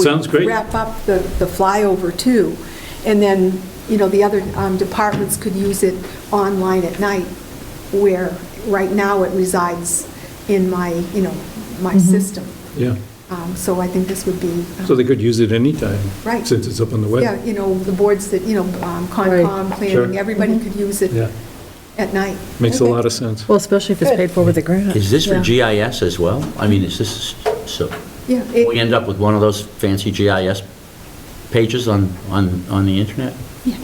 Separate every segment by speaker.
Speaker 1: would
Speaker 2: Sounds great.
Speaker 1: Wrap up the, the flyover too. And then, you know, the other um, departments could use it online at night where, right now, it resides in my, you know, my system.
Speaker 2: Yeah,
Speaker 1: Um, So I think this would be. um,
Speaker 2: so they could use it anytime.
Speaker 1: Right.
Speaker 2: Since it's up on the web.
Speaker 1: Yeah, you know, the boards that, you know, um, Concom,
Speaker 3: Right.
Speaker 1: planning,
Speaker 2: Sure.
Speaker 1: everybody could use
Speaker 2: Yeah.
Speaker 1: it at night.
Speaker 2: Makes a lot of sense.
Speaker 3: Well, especially if it's paid for with a grant.
Speaker 4: Is this for
Speaker 1: Yeah.
Speaker 4: GIS as well? I mean, is this, so,
Speaker 1: Yeah. it-
Speaker 4: we end up with one of those fancy GIS pages on, on, on the internet?
Speaker 1: Yeah.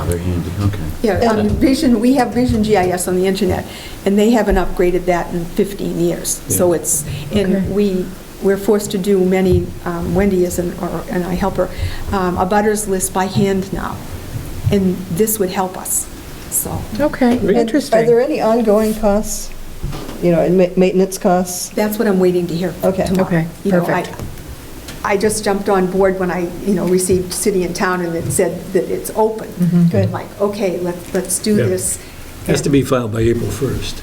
Speaker 4: Oh, they're handy, okay.
Speaker 1: Yeah, um, Vision, we have Vision GIS on the internet, and they haven't upgraded that in 15 years. So
Speaker 2: Yeah.
Speaker 1: it's, and
Speaker 3: Okay.
Speaker 1: we, we're forced to do many, um, Wendy is, an- or- and I help her, um, a butters list by hand now, and this would help us, so.
Speaker 3: Okay,
Speaker 2: Really?
Speaker 5: And Are there
Speaker 3: interesting.
Speaker 5: any ongoing costs, you know, and ma- maintenance costs?
Speaker 1: That's what I'm waiting to hear
Speaker 5: Okay.
Speaker 1: tomorrow.
Speaker 3: Okay,
Speaker 1: You know, I-
Speaker 3: perfect.
Speaker 1: I just jumped on board when I, you know, received City and Town, and it said that it's open.
Speaker 3: Mm-hmm.
Speaker 5: Good.
Speaker 1: I'm Like, okay, let's, let's do
Speaker 2: Yeah.
Speaker 1: this.
Speaker 2: Has to be filed by April 1st.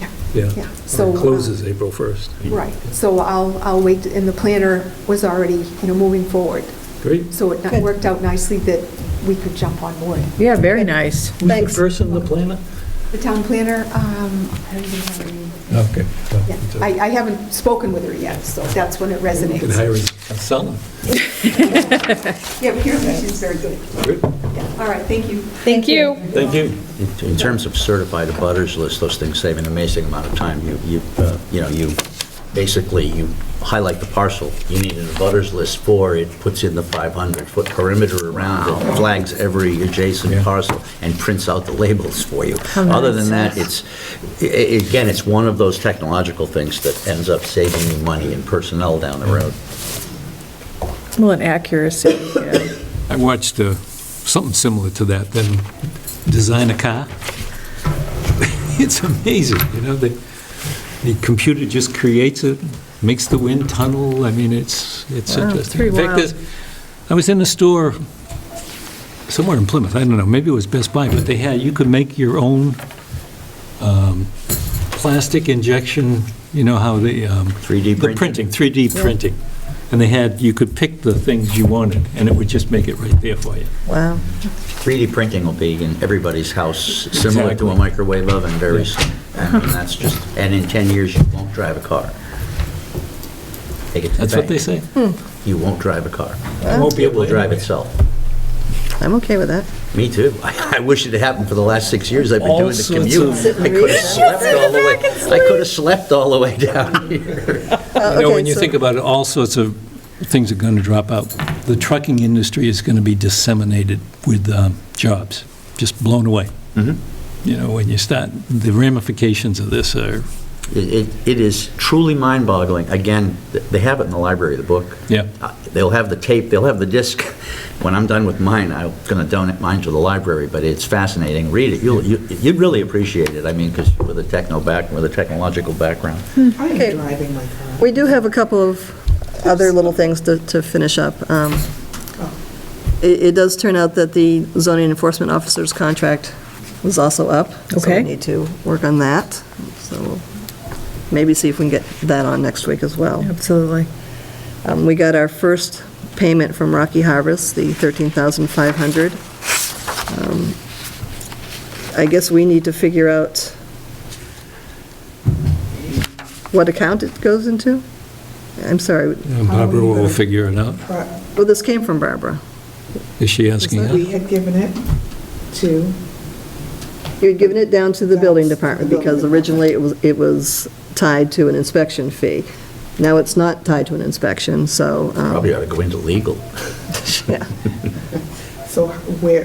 Speaker 1: Yeah.
Speaker 2: Yeah.
Speaker 1: Yeah,
Speaker 2: Or
Speaker 1: so,
Speaker 2: it
Speaker 1: uh,
Speaker 2: closes April 1st.
Speaker 1: Right, so uh, I'll, I'll wait, and the planner was already, you know, moving forward.
Speaker 2: Great.
Speaker 1: So it
Speaker 5: Good.
Speaker 1: worked out nicely that we could jump on board.
Speaker 3: Yeah, very nice.
Speaker 2: Who's the
Speaker 5: Thanks.
Speaker 2: person, the planner?
Speaker 1: The town planner, um, I don't even have her name.
Speaker 2: Okay.
Speaker 1: Yeah, I, I haven't spoken with her yet, so that's when it
Speaker 2: You can
Speaker 1: resonates.
Speaker 2: hire a consultant.
Speaker 1: Yeah, but here's, she's very good.
Speaker 2: Good.
Speaker 1: Yeah. All right, thank you.
Speaker 3: Thank you.
Speaker 2: Thank you.
Speaker 4: In- In terms of certified abutters list, those things save an amazing amount of time. You, you, uh, you know, you, basically, you highlight the parcel you need an abutters list for, it puts in the 500-foot perimeter around it, flags every
Speaker 2: Yeah.
Speaker 4: adjacent parcel, and prints out the labels for you. Other than that, it's, a- a- again, it's one of those technological things that ends up saving you money and personnel down the road.
Speaker 3: Well, and accuracy, yeah.
Speaker 2: I watched uh, something similar to that, then design a car. It's amazing, you know, the, the computer just creates it, makes the wind tunnel, I mean, it's, it's
Speaker 3: Wow, it's
Speaker 2: interesting.
Speaker 3: pretty
Speaker 2: In fact,
Speaker 3: wild.
Speaker 2: there's- I was in a store somewhere in Plymouth, I don't know, maybe it was Best Buy, but they had, you could make your own um, plastic injection, you know how the... um,
Speaker 4: 3D
Speaker 2: The
Speaker 4: printing?
Speaker 2: printing, 3D printing. And they had, you could pick the things you wanted, and it would just make it right there for you.
Speaker 3: Wow.
Speaker 4: 3D printing will be in everybody's house, similar to
Speaker 2: Exactly.
Speaker 4: a microwave oven very soon. And that's just, and in 10 years, you won't drive a car. Take it to the
Speaker 2: That's what they
Speaker 4: bank.
Speaker 2: say.
Speaker 4: You won't drive a car.
Speaker 2: I won't be
Speaker 4: It
Speaker 2: able
Speaker 4: will
Speaker 2: to
Speaker 4: drive
Speaker 2: drive it.
Speaker 4: itself.
Speaker 3: I'm okay with that.
Speaker 4: Me too. I I wish it had happened for the last six years I've been
Speaker 2: All
Speaker 4: doing the
Speaker 2: sorts
Speaker 4: commute.
Speaker 2: of-
Speaker 4: I could have slept all the way, I could have slept all the way down here.
Speaker 2: You know, when you think about it, all sorts of things are going to drop out. The trucking industry is going to be disseminated with um, jobs, just blown away. You know, when you start, the ramifications of this are,
Speaker 4: It- It it is truly mind-boggling. Again, th- they have it in the library, the book.
Speaker 2: yeah,
Speaker 4: Uh, They'll have the tape, they'll have the disc. When I'm done with mine, I'm going to donate mine to the library, but it's fascinating. Read it. You'll- you- You'd really appreciate it, I mean, because with a techno back, with a technological background.
Speaker 6: I
Speaker 5: Okay.
Speaker 6: am driving my car.
Speaker 5: We do have a couple of other little things to, to finish up. Um,
Speaker 3: Oh.
Speaker 5: It, it does turn out that the zoning enforcement officer's contract was also up. So
Speaker 3: Okay.
Speaker 5: we need to work on that. So we'll maybe see if we can get that on next week as well.
Speaker 3: Absolutely.
Speaker 5: Um, We got our first payment from Rocky Harvest, the $13,500. Um, I guess we need to figure out what account it goes into? I'm sorry,
Speaker 2: And Barbara will figure it out.
Speaker 6: But
Speaker 5: well, this came from Barbara.
Speaker 2: Is she asking?
Speaker 6: We
Speaker 2: us?
Speaker 6: had given it to,
Speaker 5: You had given it down to the building department,
Speaker 6: The building
Speaker 5: because originally it was, it was tied to an inspection fee. Now it's not tied to an inspection, so. um,
Speaker 4: Probably ought to go into legal.
Speaker 5: Yeah.
Speaker 6: so where,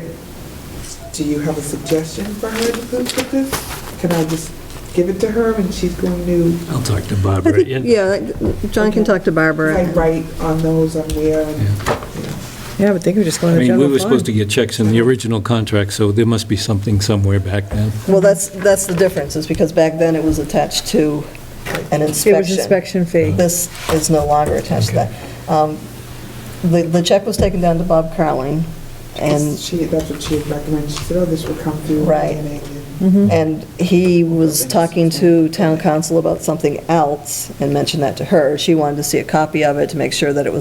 Speaker 6: do you have a suggestion for her to put put this? Can I just give it to her and she's going to
Speaker 2: I'll talk to
Speaker 5: I
Speaker 2: Barbara.
Speaker 5: think,
Speaker 2: Yeah.
Speaker 5: yeah, John can talk to Barbara.
Speaker 6: like, write on those on where? and-
Speaker 3: Yeah, I would think we're just
Speaker 2: I
Speaker 3: going to
Speaker 2: mean, we
Speaker 3: general
Speaker 2: were supposed to
Speaker 3: fund.
Speaker 2: get checks in the original contract, so there must be something somewhere back now.
Speaker 5: Well, that's, that's the difference, is because back then it was attached to an
Speaker 3: It was
Speaker 5: inspection. Mm-hmm.
Speaker 3: inspection fee.
Speaker 5: This is no longer attached to that. Um, The, the check was taken down to Bob Carling, and,
Speaker 6: She, that's what she had recommended. She said, oh, this will come through.
Speaker 5: Right.
Speaker 6: planning and
Speaker 3: Mm-hmm.
Speaker 5: And he was talking to town council about something else and mentioned that to her. She wanted to see a copy of it to make sure that it was